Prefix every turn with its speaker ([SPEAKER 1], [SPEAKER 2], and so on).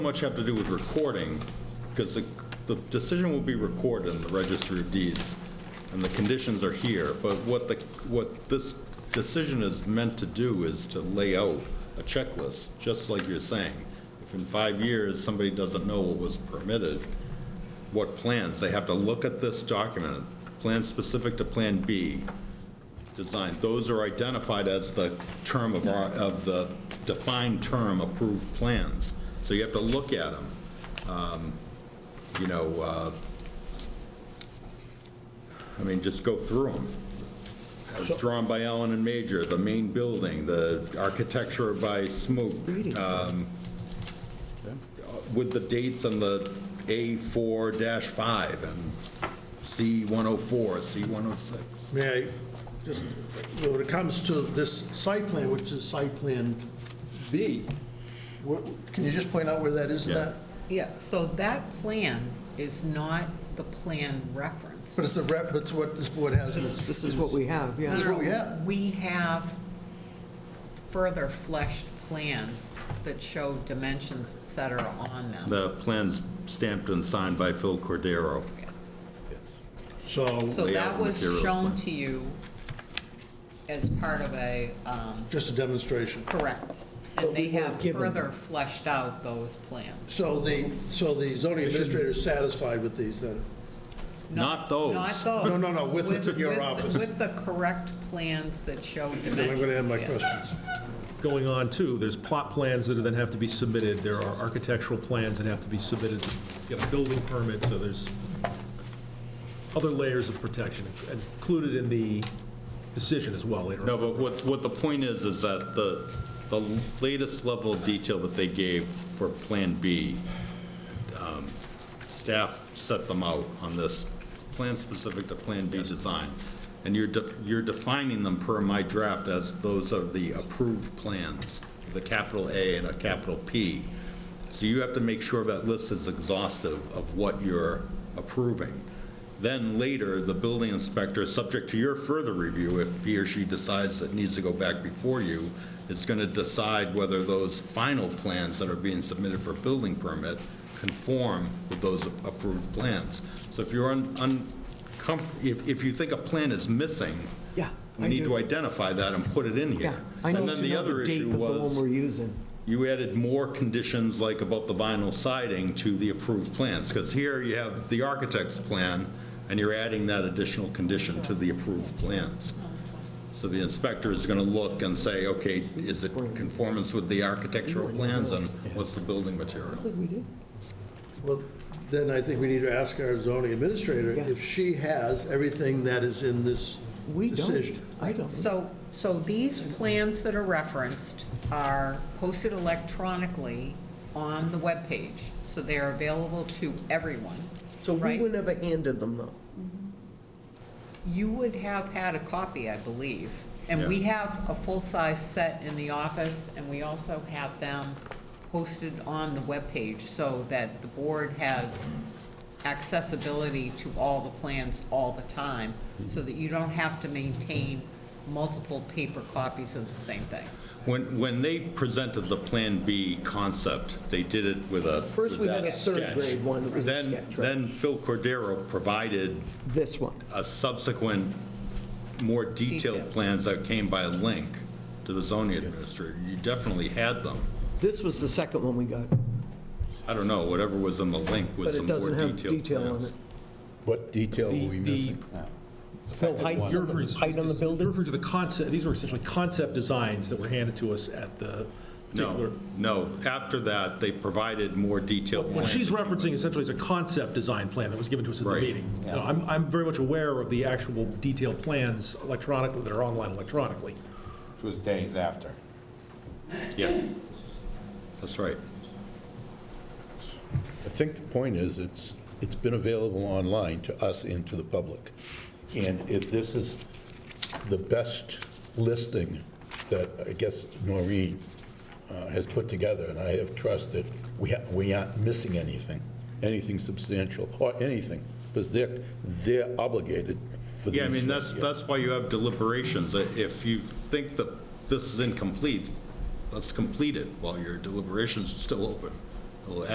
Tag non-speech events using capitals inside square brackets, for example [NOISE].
[SPEAKER 1] much have to do with recording, because the, the decision will be recorded in the registry of deeds, and the conditions are here, but what the, what this decision is meant to do is to lay out a checklist, just like you're saying. If in five years, somebody doesn't know what was permitted, what plans, they have to look at this document, plan specific to Plan B, design, those are identified as the term of our, of the defined term approved plans. So you have to look at them. You know, uh, I mean, just go through them. As drawn by Allen and Major, the main building, the architecture by Smook, um, with the dates on the A4-5 and C104, C106.
[SPEAKER 2] May I, just, you know, when it comes to this site plan, which is site plan B, what- can you just point out where that is in
[SPEAKER 1] Yeah.
[SPEAKER 2] that?
[SPEAKER 3] Yeah, so that plan is not the plan
[SPEAKER 2] [LAUGHS]
[SPEAKER 3] reference.
[SPEAKER 2] But it's the rep, that's what this board has. in its-
[SPEAKER 4] This is what we have,
[SPEAKER 3] No,
[SPEAKER 4] yeah.
[SPEAKER 2] That's what we
[SPEAKER 3] no,
[SPEAKER 2] have.
[SPEAKER 3] We have further fleshed plans that show dimensions, et cetera, on them.
[SPEAKER 1] The plan's stamped and signed by Phil Cordero.
[SPEAKER 2] So,
[SPEAKER 3] So
[SPEAKER 1] layout
[SPEAKER 3] that was
[SPEAKER 1] materials
[SPEAKER 3] shown
[SPEAKER 1] plan.
[SPEAKER 3] to you as part of a, um,
[SPEAKER 2] just a demonstration.
[SPEAKER 3] correct.
[SPEAKER 2] But
[SPEAKER 3] And
[SPEAKER 2] we
[SPEAKER 3] they have
[SPEAKER 4] weren't given-
[SPEAKER 3] further fleshed out those plans.
[SPEAKER 2] So the, so the zoning administrator is satisfied with these then?
[SPEAKER 1] Not those.
[SPEAKER 3] Not those.
[SPEAKER 2] No, no, no, with your
[SPEAKER 3] with-
[SPEAKER 2] office.
[SPEAKER 3] With the correct plans that show dimensions.
[SPEAKER 2] Then I'm going to end my
[SPEAKER 3] yes.
[SPEAKER 2] questions.
[SPEAKER 5] going on too, there's plot plans that then have to be submitted, there are architectural plans that have to be submitted to get a building permit, so there's other layers of protection included in the decision as well later. on.
[SPEAKER 1] No, but what, what the point is, is that the, the latest level of detail that they gave for Plan B, um, staff set them out on this plan specific to Plan B design. And you're, de- you're defining them per my draft as those are the approved plans, the capital A and a capital P. So you have to make sure that list is exhaustive of what you're approving. Then later, the building inspector, subject to your further review, if he or she decides it needs to go back before you, is going to decide whether those final plans that are being submitted for building permit conform with those approved plans. So if you're uncomfortable, if, if you think a plan is missing,
[SPEAKER 4] Yeah.
[SPEAKER 1] we need to identify that and put it in
[SPEAKER 4] Yeah,
[SPEAKER 1] here.
[SPEAKER 4] I
[SPEAKER 1] And
[SPEAKER 4] need
[SPEAKER 1] then
[SPEAKER 4] to
[SPEAKER 1] the
[SPEAKER 4] know
[SPEAKER 1] other
[SPEAKER 4] the date
[SPEAKER 1] issue
[SPEAKER 4] of the one
[SPEAKER 1] was,
[SPEAKER 4] we're using.
[SPEAKER 1] you added more conditions like about the vinyl siding to the approved plans, because here you have the architect's plan, and you're adding that additional condition to the approved plans. So the inspector is going to look and say, okay, is it conformance with the architectural plans, and what's the building material?
[SPEAKER 2] Well, then I think we need to ask our zoning administrator
[SPEAKER 4] Yeah.
[SPEAKER 2] if she has everything that is in this
[SPEAKER 4] We don't,
[SPEAKER 2] decision.
[SPEAKER 4] I don't.
[SPEAKER 3] So, so these plans that are referenced are posted electronically on the webpage, so they're available to everyone.
[SPEAKER 4] So we
[SPEAKER 3] right?
[SPEAKER 4] were never handed them, though.
[SPEAKER 3] You would have had a copy, I believe, and we have a full-size set in the office, and we also have them posted on the webpage so that the board has accessibility to all the plans all the time, so that you don't have to maintain multiple paper copies of the same thing.
[SPEAKER 1] When, when they presented the Plan B concept, they did it with a.
[SPEAKER 4] First, we
[SPEAKER 1] with
[SPEAKER 4] had
[SPEAKER 1] that
[SPEAKER 4] a third
[SPEAKER 1] sketch.
[SPEAKER 4] grade one that was a
[SPEAKER 1] Then-
[SPEAKER 4] sketch, right?
[SPEAKER 1] Then Phil Cordero provided
[SPEAKER 4] This one.
[SPEAKER 1] a subsequent, more detailed
[SPEAKER 3] Details.
[SPEAKER 1] plans that came by link to the zoning administrator. You definitely had them.
[SPEAKER 4] This was the second one we got,
[SPEAKER 1] I don't know, whatever was in the link
[SPEAKER 4] but
[SPEAKER 1] was
[SPEAKER 4] it
[SPEAKER 1] some more
[SPEAKER 4] doesn't have
[SPEAKER 1] detailed
[SPEAKER 4] detail on
[SPEAKER 1] plans.
[SPEAKER 4] it.
[SPEAKER 6] What detail were we
[SPEAKER 5] The- the-
[SPEAKER 6] missing?
[SPEAKER 4] No heights,
[SPEAKER 5] You're referring-
[SPEAKER 4] height on the
[SPEAKER 5] You're
[SPEAKER 4] building?
[SPEAKER 5] referring to the concept, these were essentially concept designs that were handed to us at the particular.
[SPEAKER 1] No, no, after that, they provided more detailed
[SPEAKER 5] What
[SPEAKER 1] plans.
[SPEAKER 5] she's referencing essentially is a concept design plan that was given to us at the
[SPEAKER 1] Right.
[SPEAKER 5] meeting. No, I'm, I'm very much aware of the actual detailed plans electronically, that are online electronically.
[SPEAKER 7] Which was days after.
[SPEAKER 1] Yeah, that's right.
[SPEAKER 6] I think the point is, it's, it's been available online to us and to the public. And if this is the best listing that, I guess, Noreen uh, has put together, and I have trust that we ha we aren't missing anything, anything substantial, or anything, because they're, they're obligated for these.
[SPEAKER 1] Yeah, I mean, that's,
[SPEAKER 6] yeah.
[SPEAKER 1] that's why you have deliberations. Uh, If you think that this is incomplete, let's complete it while your deliberations are still open. We'll